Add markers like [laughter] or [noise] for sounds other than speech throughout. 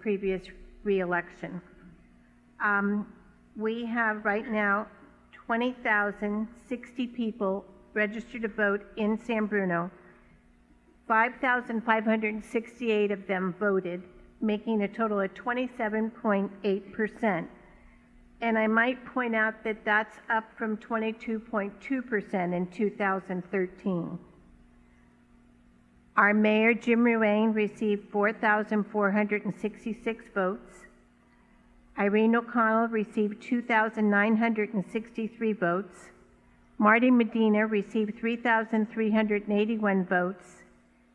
previous reelection. Um, We have right now 20,060 people registered to vote in San Bruno. 5,568 of them voted, making a total of 27.8%. And I might point out that that's up from 22.2% in 2013. Our mayor, Jim Ruane, received 4,466 votes. Irene O'Connell received 2,963 votes. Marty Medina received 3,381 votes.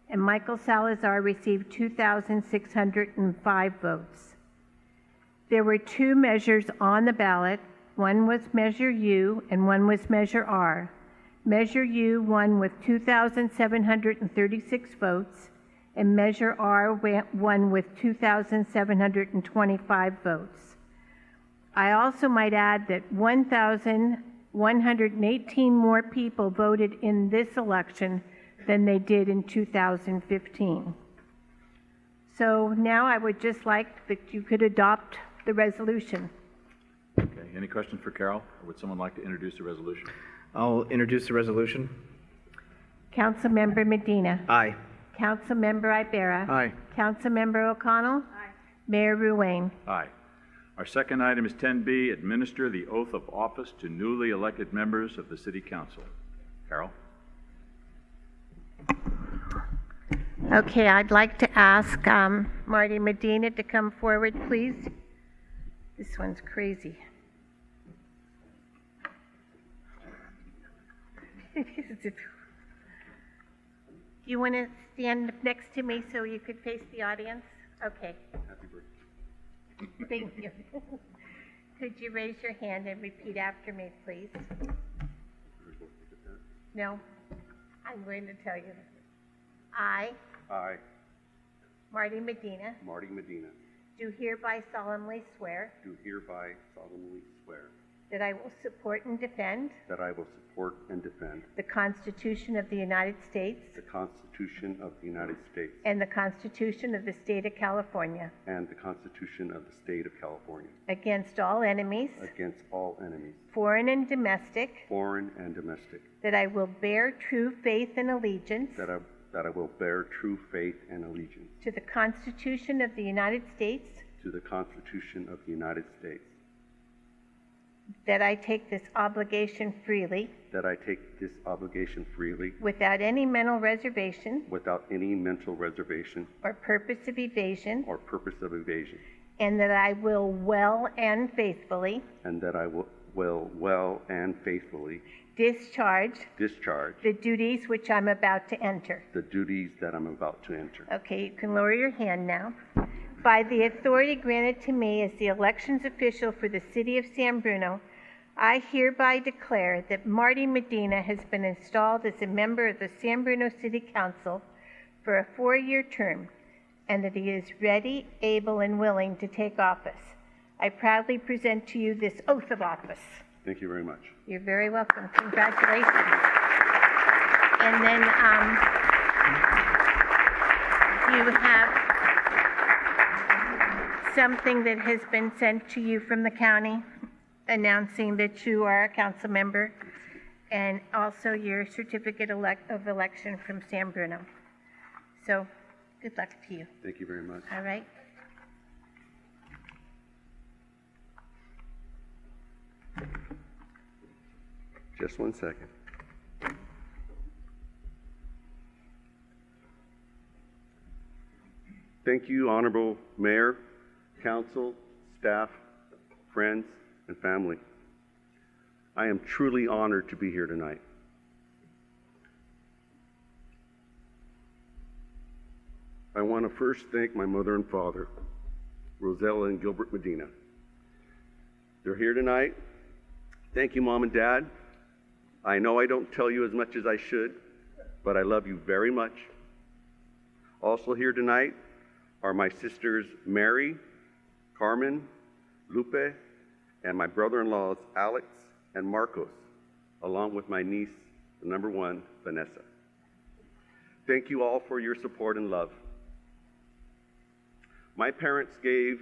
And Michael Salazar received 2,605 votes. There were two measures on the ballot. One was Measure U and one was Measure R. Measure U won with 2,736 votes, and Measure R wa- won with 2,725 votes. I also might add that 1,118 more people voted in this election than they did in 2015. So now I would just like that you could adopt the resolution. Okay, any questions for Carol? Or would someone like to introduce the resolution? I'll introduce the resolution. Councilmember Medina. Aye. Councilmember Ibera. Aye. Councilmember O'Connell. Mayor Ruane. Aye. Our second item is 10B, administer the oath of office to newly elected members of the City Council. Carol? Okay, I'd like to ask um, Marty Medina to come forward, please. This one's crazy. [laughs] You want to stand up next to me so you could face the audience? Okay. Thank you. [laughs] Could you raise your hand and repeat after me, please? No, I'm going to tell you. I I, Marty Medina, Marty Medina, do hereby solemnly swear do hereby solemnly swear that I will support and defend that I will support and defend the Constitution of the United States the Constitution of the United States and the Constitution of the State of California and the Constitution of the State of California against all enemies, against all enemies, foreign and domestic, foreign and domestic, that I will bear true faith and allegiance that I, that I will bear true faith and allegiance to the Constitution of the United States, to the Constitution of the United States, that I take this obligation freely that I take this obligation freely without any mental reservation without any mental reservation or purpose of evasion, or purpose of evasion, and that I will well and faithfully and that I will, will well and faithfully discharge discharge the duties which I'm about to enter. the duties that I'm about to enter. Okay, you can lower your hand now. By the authority granted to me as the elections official for the city of San Bruno, I hereby declare that Marty Medina has been installed as a member of the San Bruno City Council for a four year term and that he is ready, able, and willing to take office. I proudly present to you this oath of office. Thank you very much. You're very welcome. Congratulations. And then um, you have something that has been sent to you from the county announcing that you are a council member and also your certificate elec- of election from San Bruno. So good luck to you. Thank you very much. All right. Just one second. Thank you, Honorable Mayor, Council, staff, friends, and family. I am truly honored to be here tonight. I want to first thank my mother and father, Rosella and Gilbert Medina. They're here tonight. Thank you, Mom and Dad, I know I don't tell you as much as I should, but I love you very much. Also, here tonight are my sisters Mary, Carmen, Lupe, and my brother in laws Alex and Marcos, along with my niece, the number one, Vanessa. Thank you all for your support and love. My parents gave